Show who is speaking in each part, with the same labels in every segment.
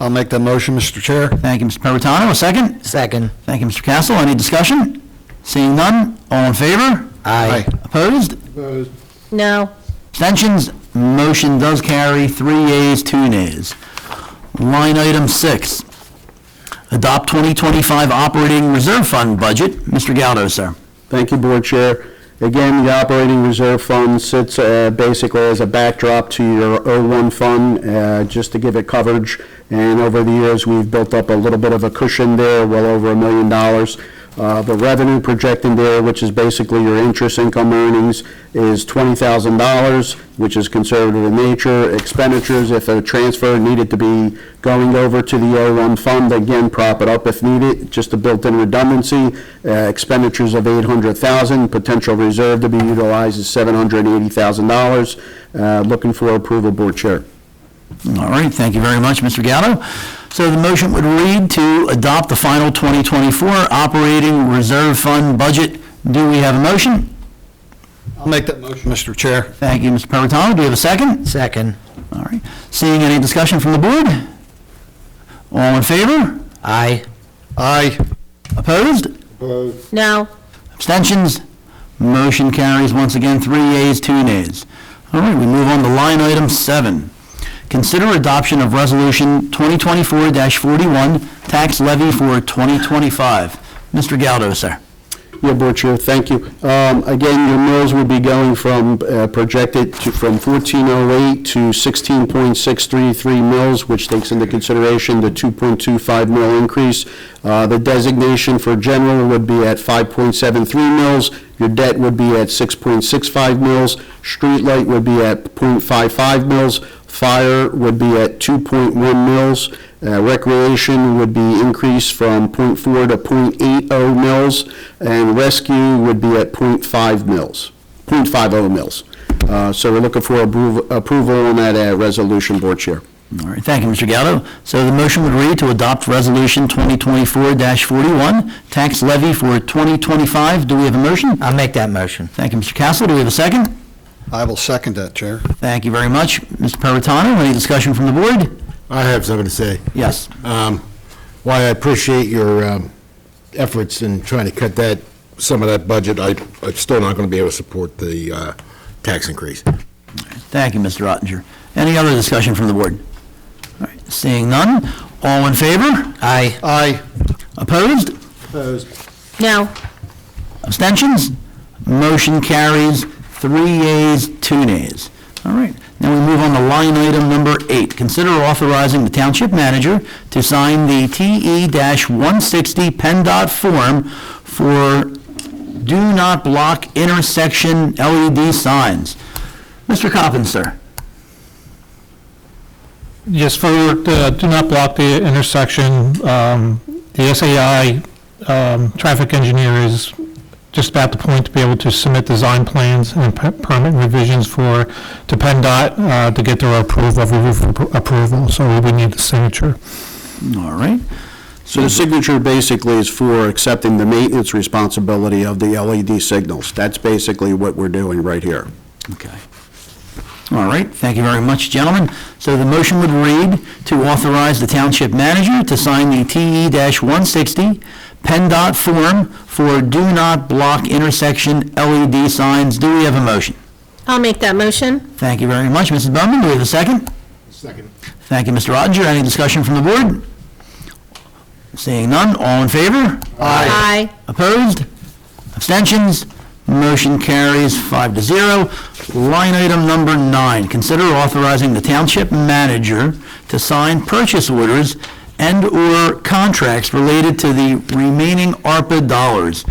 Speaker 1: I'll make that motion, Mr. Chair.
Speaker 2: Thank you, Mr. Perrotano. A second?
Speaker 3: Second.
Speaker 2: Thank you, Mr. Castle. Any discussion? Seeing none, all in favor?
Speaker 3: Aye.
Speaker 2: Opposed?
Speaker 4: Opposed?
Speaker 5: No.
Speaker 2: Abstentions? Motion does carry, three yeas, two nays. Line item six, adopt 2025 operating reserve fund budget. Mr. Galdo, sir.
Speaker 6: Thank you, Board Chair. Again, the operating reserve fund sits uh, basically as a backdrop to your 01 fund, uh, just to give it coverage. And over the years, we've built up a little bit of a cushion there, well over a million dollars. Uh, The revenue projected there, which is basically your interest income earnings, is $20,000, which is conservative in nature. Expenditures, if a transfer needed to be going over to the 01 fund, again, prop it up if needed, just a built-in redundancy. Uh, Expenditures of 800,000, potential reserve to be utilized is $780,000. Uh, Looking for approval, Board Chair.
Speaker 2: All right, thank you very much, Mr. Gallo. So the motion would read to adopt the final 2024 operating reserve fund budget. Do we have a motion?
Speaker 1: I'll make that motion, Mr. Chair.
Speaker 2: Thank you, Mr. Perrotano. Do we have a second?
Speaker 3: Second.
Speaker 2: All right. Seeing any discussion from the board? All in favor?
Speaker 3: Aye.
Speaker 1: Aye.
Speaker 2: Opposed?
Speaker 4: Opposed?
Speaker 5: No.
Speaker 2: Abstentions? Motion carries once again, three yeas, two nays. All right, we move on to line item seven. Consider adoption of Resolution 2024-41, tax levy for 2025. Mr. Galdo, sir.
Speaker 6: Yeah, Board Chair, thank you. Um, Again, your mills will be going from uh, projected to, from 1408 to 16.633 mills, which takes into consideration the 2.25 mill increase. Uh, The designation for general would be at 5.73 mills. Your debt would be at 6.65 mills. Street light would be at .55 mills. Fire would be at 2.1 mills. Uh, Recreation would be increased from .4 to .80 mills, and rescue would be at .5 mills, .50 mills. Uh, So we're looking for approv- approval on that uh, resolution, Board Chair.
Speaker 2: All right, thank you, Mr. Gallo. So the motion would read to adopt Resolution 2024-41, tax levy for 2025. Do we have a motion?
Speaker 3: I'll make that motion.
Speaker 2: Thank you, Mr. Castle. Do we have a second?
Speaker 1: I will second that, Chair.
Speaker 2: Thank you very much. Mr. Perrotano, any discussion from the board?
Speaker 4: I have something to say.
Speaker 2: Yes.
Speaker 4: Um, Why I appreciate your um, efforts in trying to cut that, some of that budget, I, I'm still not going to be able to support the uh, tax increase.
Speaker 2: Thank you, Mr. Ottinger. Any other discussion from the board? All right, Seeing none, all in favor?
Speaker 3: Aye.
Speaker 1: Aye.
Speaker 2: Opposed?
Speaker 4: Opposed.
Speaker 5: No.
Speaker 2: Abstentions? Motion carries, three yeas, two nays. All right, now we move on to line item number eight. Consider authorizing the township manager to sign the E TE-160 PennDOT form for do not block intersection LED signs. Mr. Coppin, sir.
Speaker 7: Yes, for, uh, do not block the intersection. Um, The SAI um, traffic engineer is just about the point to be able to submit design plans and per- permit revisions for, to PennDOT uh, to get their approval, appro- approval, so we need the signature.
Speaker 2: All right.
Speaker 6: So the signature basically is for accepting the maintenance responsibility of the LED signals. That's basically what we're doing right here.
Speaker 2: Okay. All right, thank you very much, gentlemen. So the motion would read to authorize the township manager to sign the E TE-160 PennDOT form for do not block intersection LED signs. Do we have a motion?
Speaker 5: I'll make that motion.
Speaker 2: Thank you very much, Mrs. Bowman. Do we have a second?
Speaker 4: Second.
Speaker 2: Thank you, Mr. Roger. Any discussion from the board? Seeing none, all in favor?
Speaker 5: Aye.
Speaker 2: Opposed? Abstentions? Motion carries five to zero. Line item number nine, consider authorizing the township manager to sign purchase orders and/or contracts related to the remaining ARPA dollars.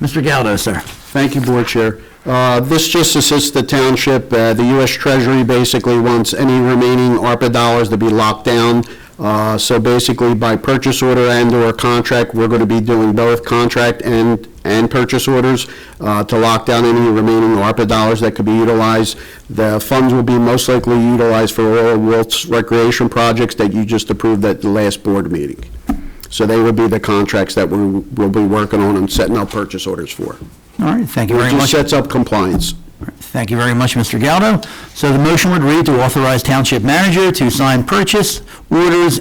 Speaker 2: Mr. Galdo, sir.
Speaker 6: Thank you, Board Chair. Uh, This just assists the township. Uh, The U.S. Treasury basically wants any remaining ARPA dollars to be locked down. Uh, So basically, by purchase order and/or contract, we're going to be doing both contract and, and purchase orders uh, to lock down any remaining ARPA dollars that could be utilized. The funds will be most likely utilized for Royal Wilt's recreation projects that you just approved at the last board meeting. So they will be the contracts that we will be working on and setting up purchase orders for.
Speaker 2: All right, thank you
Speaker 6: It
Speaker 2: very
Speaker 6: just
Speaker 2: much.
Speaker 6: sets up compliance.
Speaker 2: Thank you very much, Mr. Galdo. So the motion would read to authorize township manager to sign purchase orders